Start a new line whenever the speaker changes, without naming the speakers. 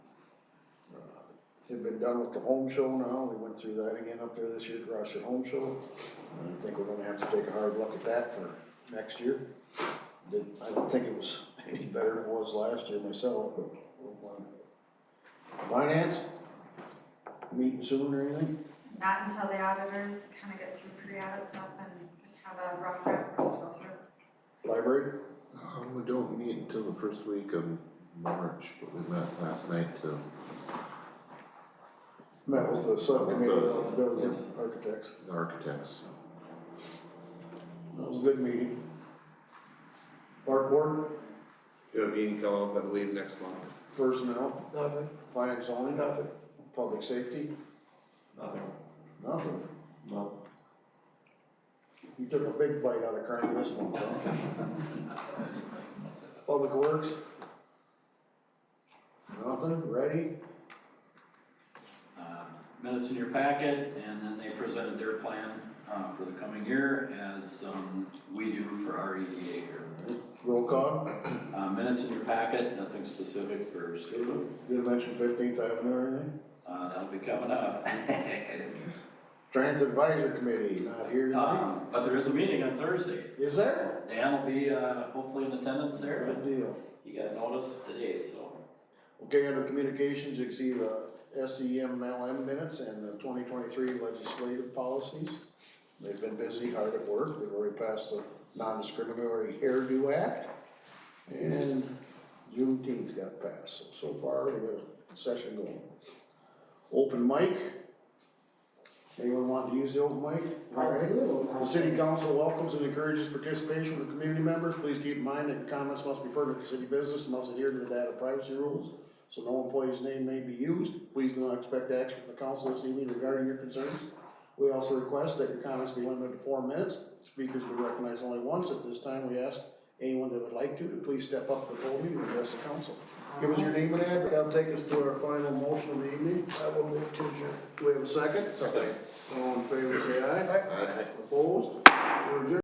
Uh, had been done with the home show now, we went through that again up there this year, garage at home show. And I think we're gonna have to take a hard look at that for next year. Didn't, I don't think it was any better than it was last year myself, but. we'll find out. Finance, meeting soon or anything?
Not until the auditors kind of get through pre-audit stuff and have a rough draft for us to go through.
Library,
Uh, we don't meet until the first week of March, but we met last night to,
met with the subcommittee of building architects,
the architects.
that was a good meeting. Park board,
We have a meeting coming up, I believe, next month.
personnel,
Nothing,
fire and zoning,
nothing.
public safety,
Nothing.
nothing.
No.
You took a big bite out of crime this one, Tom. Public Works? Nothing, ready?
um, minutes in your packet, and then they presented their plan, uh, for the coming year as, um, we do for our EDA here.
Roll call,
Uh, minutes in your packet, nothing specific for Scuba,
didn't mention Fifteenth Avenue or anything.
uh, that'll be coming up.
Transit Advisory Committee, not here tonight.
Um, but there is a meeting on Thursday.
Is there?
Dan will be, uh, hopefully in attendance there,
Good
but
deal.
he got notice today, so.
Okay, under communications, you can see the E SEMLM minutes and the twenty twenty-three legislative policies. They've been busy, hard at work, they've already passed the non-discriminatory hairdo act. And Juneteenth got passed, so so far, we got a session going. Open mic. Anyone want to use the open mic? All right. The city council welcomes and encourages participation from community members. Please keep in mind that your comments must be pertinent to city business and must adhere to the data privacy rules. So no employee's name may be used. Please do not expect action from the council this evening regarding your concerns. We also request that your comments be limited to four minutes. Speakers will be recognized only once. At this time, we ask anyone that would like to, to please step up to the podium and address the council. Give us your name and address. That'll take us to our final motion of the evening.
I will move to adjourn.
Do we have a second? Second. All in favor, say aye.
Aye.
Opposed? We're adjourned.